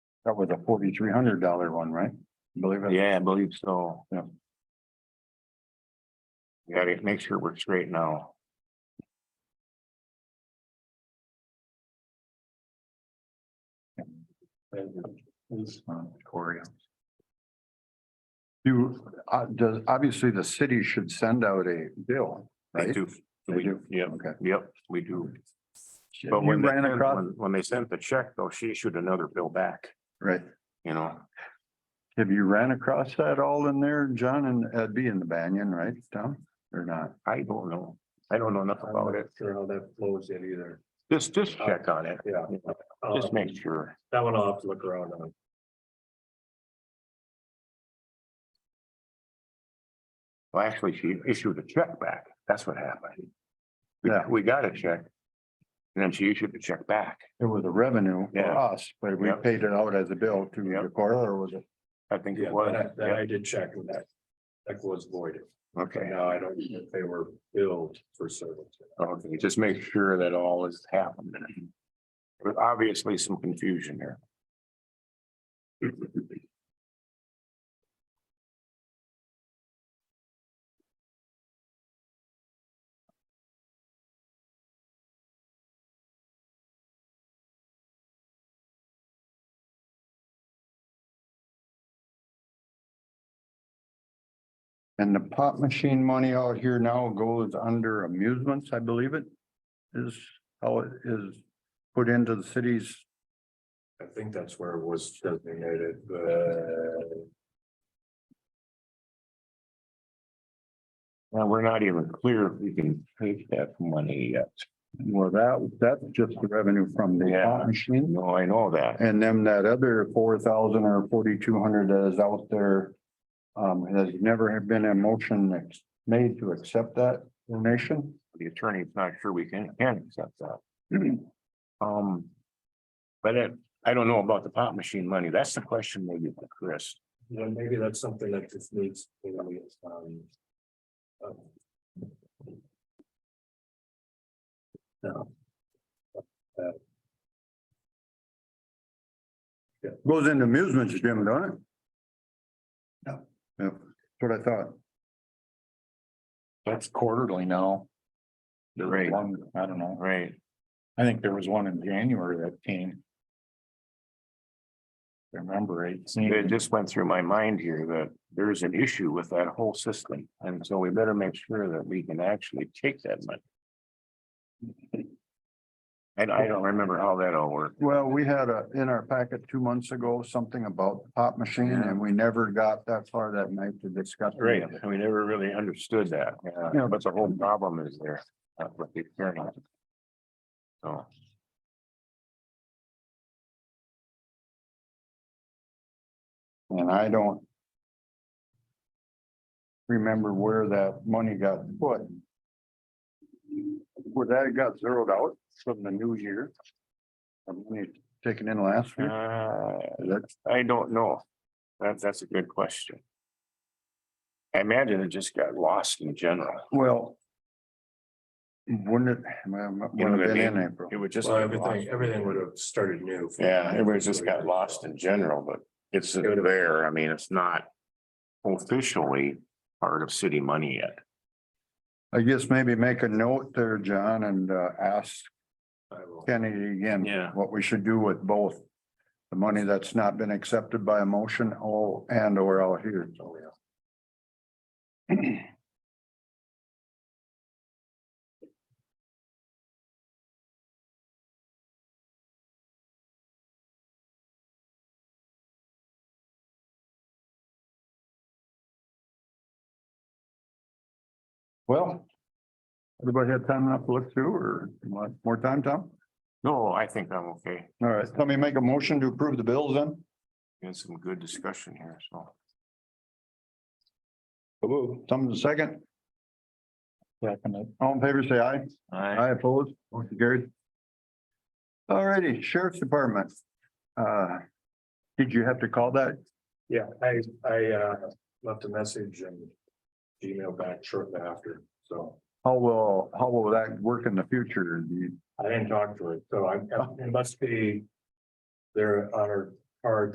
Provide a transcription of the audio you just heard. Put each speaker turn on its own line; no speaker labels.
That was a forty-three hundred dollar one, right? Believe it.
Yeah, I believe so.
Yeah.
We Gotta make sure we're straight now.
Cory. You, uh, does, obviously the city should send out a bill,
They
right?
do.
They
We-
do.
Yep,
Okay.
yep, we do.
You
But when, they
ran
sent-
across,
when- when they sent the check, though, she issued another bill back,
right,
you know,
have you ran across that all in there, John, and that'd be in the Banyan, right, Tom, or not?
I don't know. I don't know enough about it.
Sure how that flows in either.
Just, just
Uh,
check on it.
Yeah.
you know, Just
Um,
make sure.
That one I'll have to look around on.
Well, actually, she issued a check back. That's what happened. We-
Yeah.
We got a check. And then she issued the check back.
It was a revenue for
Yeah.
us, but we
Yep.
paid it out as a bill to
Yep.
the court, or was it?
I think
Yeah,
it was.
that- That
Yep,
I did check and that, that was voided.
Okay.
Now I don't know if they were billed for service.
Okay, just make sure that all is happening. There's obviously some confusion here.
And the pot machine money out here now goes under amusements, I believe it is how it is put into the city's.
I think that's where it was designated, but
Now, we're not even clear if we can take that money yet.
Well, that, that's just the revenue from the
Yeah.
pot machine.
No, I know that.
And then that other four thousand or forty-two hundred that is out there. Um, has never have been a motion ex- made to accept that donation.
The attorney's not sure we can, can accept that. Um. But it- I don't know about the pot machine money. That's the question maybe for Chris.
you know, maybe that's something that just needs, you know, it's, um. um, No,
Goes into amusements, Jim, don't it? No. Yeah, that's what I thought.
That's quarterly now. There was
Right.
one, I don't know,
Right,
I think there was one in January that came. I Remember it
it
seemed,
just went through my mind here that there's an issue with that whole system, and so we better make sure that we can actually take that money. And I don't remember how that all worked.
Well, we had a, in our packet two months ago, something about the pop machine and we never got that far that night to discuss. it.
Right, and we never really understood that,
Yeah.
yeah, but the whole problem is there, uh, with the attorney. So.
And I don't. Remember where that money got put. Where that got zeroed out from the new year. The money taken in last year,
Uh,
that's,
I don't know. That, that's a good question. I imagine it just got lost in general.
well. Wouldn't it, well, it
You know
would
what I
have been in
mean?
April.
It would just.
well,
get lost.
everything, everything would have started new.
Yeah, it was just got lost in general, but it's
would've-
there. I mean, it's not officially part of city money yet.
I guess maybe make a note there, John, and uh, ask
I will.
Kennedy again.
Yeah.
What we should do with both. The money that's not been accepted by a motion all and or out here. So, yeah. Well. Everybody had time enough to look through or want more time, Tom?
No, I think I'm okay.
All right, let me make a motion to approve the bills then.
Had some good discussion here, so.
Someone second,
Second,
all in favor, say aye.
I
Aye opposed, motion carried. All righty, Sheriff's Department. Uh, did you have to call that?
Yeah, I, I, uh, left a message and email back shortly after, so.
How will, how will that work in the future? Do you-
I didn't talk to it, so I, it must be. There on our card